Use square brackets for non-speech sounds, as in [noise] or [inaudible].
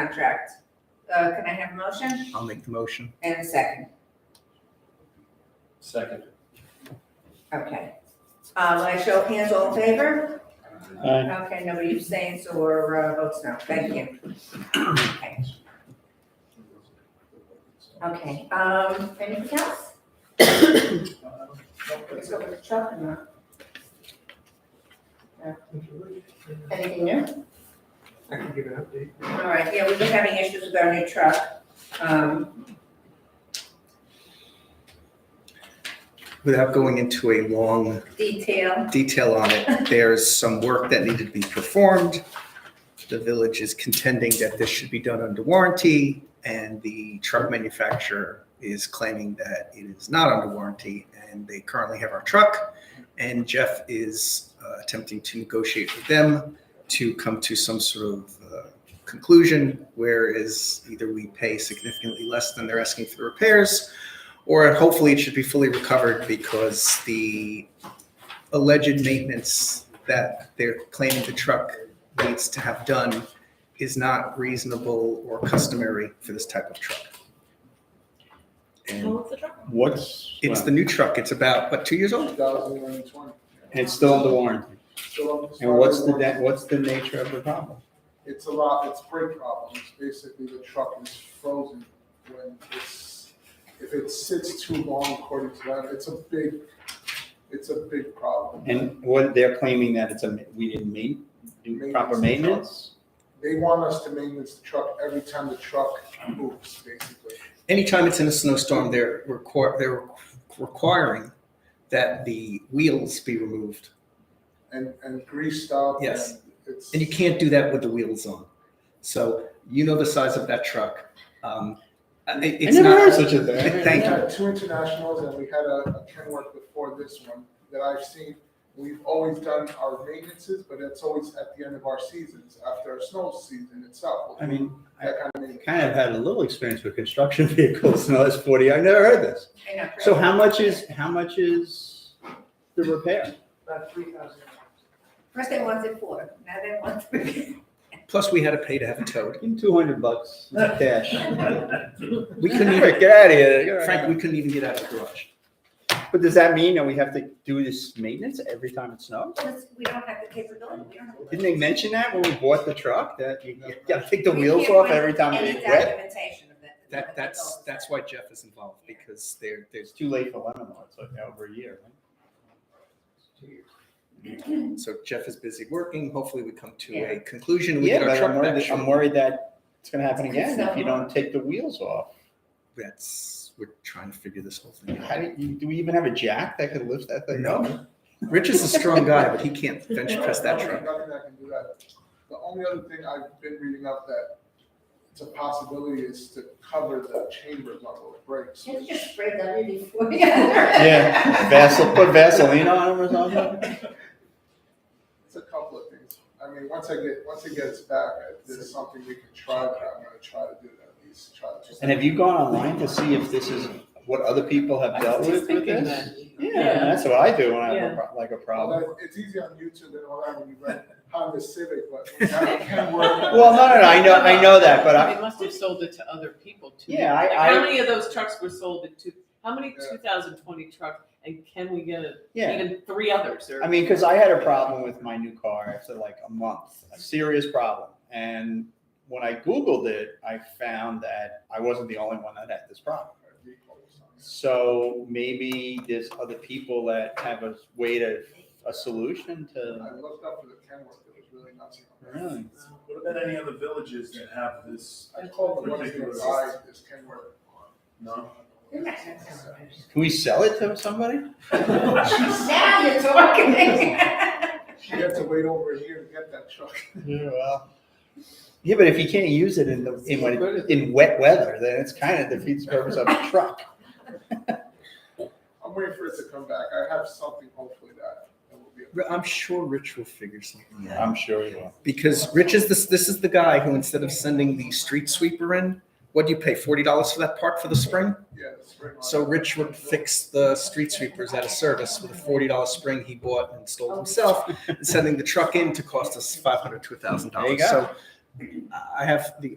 contract. Uh, can I have a motion I'll make the motion. and a second? Second. Okay. Uh, will I show of hands, all in favor? Aye. Okay, nobody abstains or uh, votes no, thank you. Okay. Okay, um, anything else? Let's go with Chuck and, uh, anything new? I can give an update. All right, yeah, we've been having issues with our new truck. Um, Without going into a long detail, detail on it, there's some work that needed to be performed. The village is contending that this should be done under warranty, and the truck manufacturer is claiming that it is not under warranty, and they currently have our truck. And Jeff is uh, attempting to negotiate with them to come to some sort of uh, conclusion, whereas either we pay significantly less than they're asking for the repairs, or hopefully it should be fully recovered because the alleged maintenance that they're claiming the truck needs to have done is not reasonable or customary for this type of truck. And What's? it's the new truck, it's about, what, two years old? And it's still under warranty. And what's the, da- what's the nature of the problem? It's a lot, it's brake problems, basically the truck is frozen when it's, if it sits too long according to them, it's a big, it's a big problem. And what, they're claiming that it's a, ma- we didn't meet, do proper maintenance? They want us to maintenance the truck every time the truck moves, basically. anytime it's in a snowstorm, they're require, they're requiring that the wheels be removed. And, and greased up and Yes. it's. And you can't do that with the wheels on. So you know the size of that truck. Um, and it- I it's never heard not, such a [laughs] thing. Thank We you. had two internationals and we had a, a Kenworth before this one that I've seen. We've always done our maintenances, but it's always at the end of our seasons, after our snow season itself. I mean, That kind of maintenance. kind of had a little experience with construction [laughs] vehicles in the last forty, I never heard this. I know. So how much is, how much is the repair? About three thousand. First they wanted four, now they want three. plus we had to pay to have it towed. In two hundred bucks cash. [laughs] We couldn't even, Get out of here. Frank, we couldn't even get out of the garage. But does that mean that we have to do this maintenance every time it snows? Because we don't have the capability, we don't have. the- Didn't they mention that when we bought the truck, that you you gotta take the We wheels can't off find every time any they get wet? documentation of that. That, that's, that's why Jeff is involved, because they're, It's too late for Lebanon, it's like over a year. they're, so Jeff is busy working, hopefully we come to Yeah. a conclusion, we Yeah, get our but I'm truck worried, back. that- I'm shortly. worried that it's gonna happen again if you So- don't take the wheels off. That's, we're trying to figure this whole thing How out. do you, do we even have a jack that could lift that thing No. up? Rich is a strong [laughs] guy, but he can't bench press that Nothing- truck. Nothing that can do that. The only other thing I've been reading up that it's a possibility is to cover the chambers on those brakes. Can you just spread that in before? [laughs] Yeah, Vasel, put Vaseline on them or something? It's a couple of things. I mean, once I get, once it gets back, there's something we can try, but I'm gonna try to do that, at least try to. And have you gone online to see if this is what other people have dealt with with [laughs] this? Yeah, that's what I do when I have a pro- like a problem. Although it's easy on YouTube and all that when you run Honda Civic, but when that can work. [laughs] Well, no, no, no, I know, I know that, but I, They must have sold it to other people too. Yeah, I- Like, I- How many of those trucks were sold to, how many Yeah. two thousand twenty trucks, and can we get a- yeah. even three others or? I mean, because I had a problem with my new car after like a month, a serious problem. And when I Googled it, I found that I wasn't the only one that had this problem. So maybe there's other people that have a way to, a solution to. I looked up for the Kenworth, it was really nothing. Really? What about any other villages that have this? I called the ones that buy this Kenworth. No? Can we sell it to somebody? [laughs] Now you're talking. [laughs] You have to wait over a year to get that truck. Yeah, well. Yeah, but if you can't use it in the, in when, in wet weather, then it's kind of defeats the purpose of a truck. I'm waiting for it to come back. I have something hopefully that, that will be. I'm sure Rich will figure something out. I'm sure you will. Because Rich is this, this is the guy who instead of sending the street sweeper in, what do you pay, forty dollars for that part for the spring? Yeah, the spring. one. So Rich would fix the street sweepers out of service with a forty dollar spring he bought and installed himself, and sending the truck in to cost us five hundred to a thousand There you dollars. go. So uh, I have the